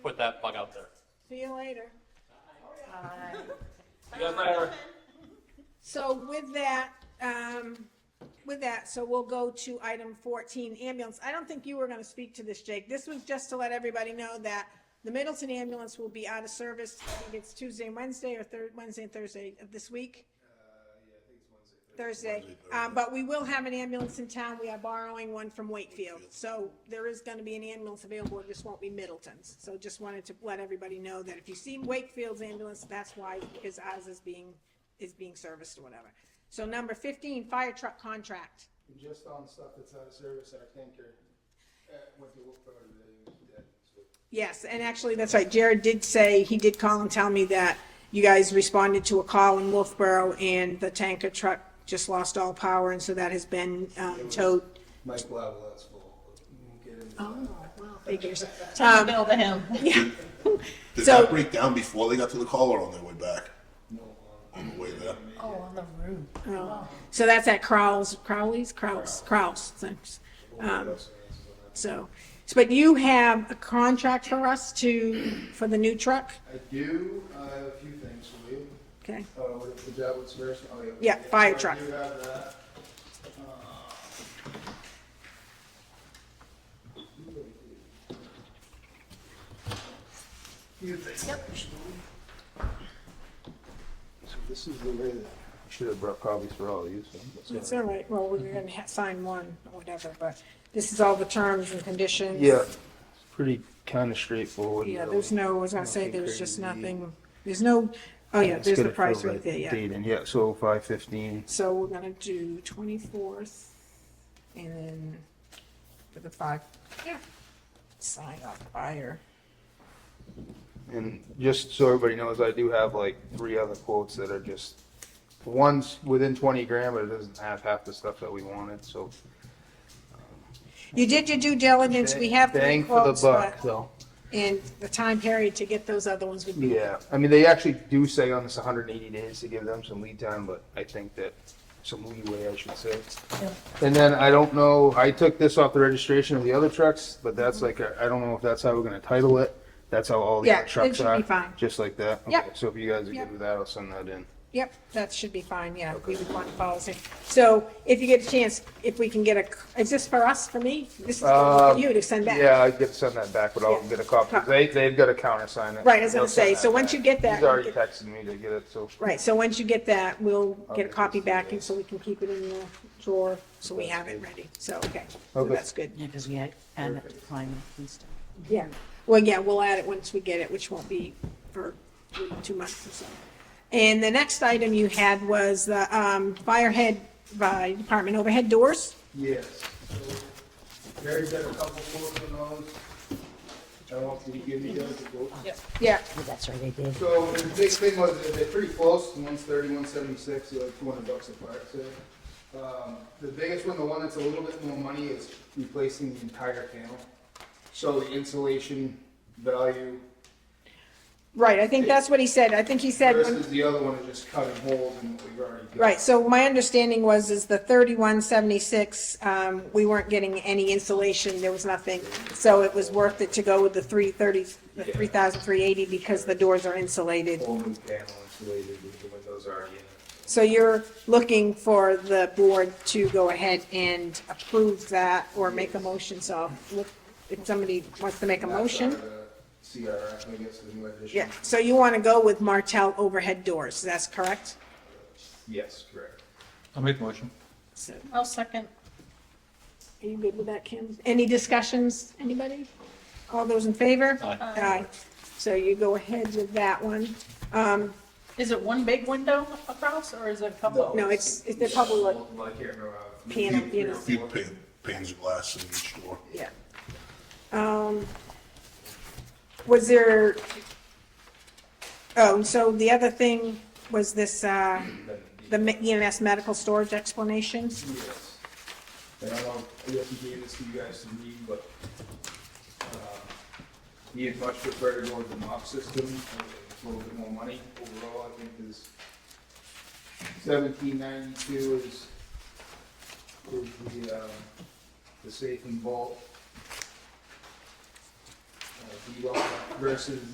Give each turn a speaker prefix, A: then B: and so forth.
A: later.
B: See you guys later.
A: So with that, um, with that, so we'll go to item fourteen, ambulance. I don't think you were gonna speak to this, Jake. This was just to let everybody know that the Middleton ambulance will be out of service, I think it's Tuesday, and Wednesday, or Thurs, Wednesday and Thursday of this week? Thursday, um, but we will have an ambulance in town. We are borrowing one from Wakefield. So there is gonna be an ambulance available, it just won't be Middleton's. So just wanted to let everybody know that if you see Wakefield's ambulance, that's why, because ours is being, is being serviced or whatever. So number fifteen, fire truck contract.
C: And just on stuff that's out of service, our tanker, uh, went to look for the, dead, so.
A: Yes, and actually, that's right. Jared did say, he did call and tell me that you guys responded to a call in Wolfboro and the tanker truck just lost all power and so that has been, um, towed.
C: Mike Blavel's fault, but we won't get into that.
A: Well, Figures.
D: Turn the bill to him.
A: Yeah.
E: Did
A: So-
E: that break down before they got to the call or on their way back?
C: No, um,
E: On the way there.
D: Oh, on the roof.
A: Oh, So that's at Crowell's, Crowley's, Crowell's, Crowell's, thanks.
C: we'll get us some answers on that.
A: So, so, but you have a contract for us to, for the new truck?
C: I do, I have a few things for you.
A: Okay,
C: Uh, what, the job with Sebastian, oh, yeah.
A: Yeah, fire truck.
C: I do have that. Uh, You think? So this is the way that. Should have brought copies for all of you, so.
A: that's all right. Well, we we're gonna ha- sign one or whatever, but this is all the terms and conditions.
C: Yeah, it's pretty kind of straightforward.
A: Yeah, there's no, I was gonna say,
C: Nothing
A: there's just
C: crazy.
A: nothing, there's no, oh yeah,
C: It's
A: there's the
C: gonna
A: price
C: fill
A: right
C: that
A: there, yeah.
C: Date in, yeah, so five fifteen.
A: So we're gonna do twenty-fourth and then for the five, yeah, sign off fire.
C: And just so everybody knows, I do have like three other quotes that are just, one's within twenty grand, but it doesn't have half the stuff that we wanted, so.
A: You did your due diligence, we have three
C: Bang for the
A: quotes,
C: buck,
A: but,
C: though.
A: and the time period to get those other ones would be.
C: Yeah, I mean, they actually do say on this hundred and eighty days to give them some lead time, but I think that, some leeway, I should say. And then I don't know, I took this off the registration of the other trucks, but that's like, a- I don't know if that's how we're gonna title it. That's how all the
A: Yeah,
C: other
A: it
C: trucks
A: should
C: are.
A: be fine.
C: Just like that?
A: Yep.
C: Okay, So if you guys are
A: Yep.
C: good with that, I'll send that in.
A: Yep, that should be fine, yeah, we would want policy. So if you get a chance, if we can get a, is this for us, for me? This is for
C: Um,
A: you to send back.
C: Yeah, I get to send that back, but I'll
A: Yeah.
C: get a copy. They, they've got to countersign it.
A: Right, I was gonna
C: They'll send
A: say,
C: that
A: so once
C: back.
A: you get that,
C: He's
A: you
C: already
A: get-
C: texted me to get it, so.
A: Right, so once you get that, we'll
C: I'll
A: get a
C: get
A: copy
C: this
A: back
C: today.
A: and so we can keep it in the drawer, so we have it
C: That's
A: ready, so, okay, so
C: Okay.
A: that's good.
F: Yeah, because we had, added up the climate and stuff.
A: Yeah, well, yeah, we'll add it once we get it, which won't be for two- two months or so. And the next item you had was the um, firehead by department overhead doors.
C: Yes. So Mary's got a couple quotes on those. I don't know if you give me those to go.
A: Yeah.
F: Oh, That's right, I did.
C: So the big thing was that they're pretty close, one's thirty, one's seventy-six, so like two hundred bucks apart, so. Um, the biggest one, the one that's a little bit more money is replacing the entire panel. So the insulation value
A: Right, I think that's what he said, I think he said,
C: versus the other one is just cutting holes in what we've already got.
A: right, so my understanding was is the thirty-one seventy-six, um, we weren't getting any insulation, there was nothing. So it was worth it to go with the three thirty, the
C: Yeah.
A: three thousand three eighty because the doors are insulated.
C: Whole new panel insulated, the windows are in.
A: So you're looking for the board to go ahead and approve that or make a motion, so look, if somebody wants to make a motion.
C: CRF, I guess, the new addition.
A: Yeah, so you want to go with Martel overhead doors, that's correct?
C: Yes, correct.
B: I'll make the motion.
A: So,
D: I'll second.
A: are you good with that, Kim? Any discussions, anybody? All those in favor?
B: Aye.
A: Aye. So you go ahead with that one. Um,
D: Is it one big window across or is it a couple?
A: No, it's- it's- they're probably like-
C: Multiple, I can't remember. how-
A: Panel, you know.
E: A few pan, panes of glass in each door.
A: yeah. Um, was there, oh, so the other thing was this, uh, the me- EMS medical storage explanations?
C: Yes. And I don't, I guess he gave this to you guys to read, but, uh, he had much preferred to go with the mop system, uh, it's a little bit more money overall, I think is seventeen ninety-two is, is the, uh, the safe and vault. Uh, versus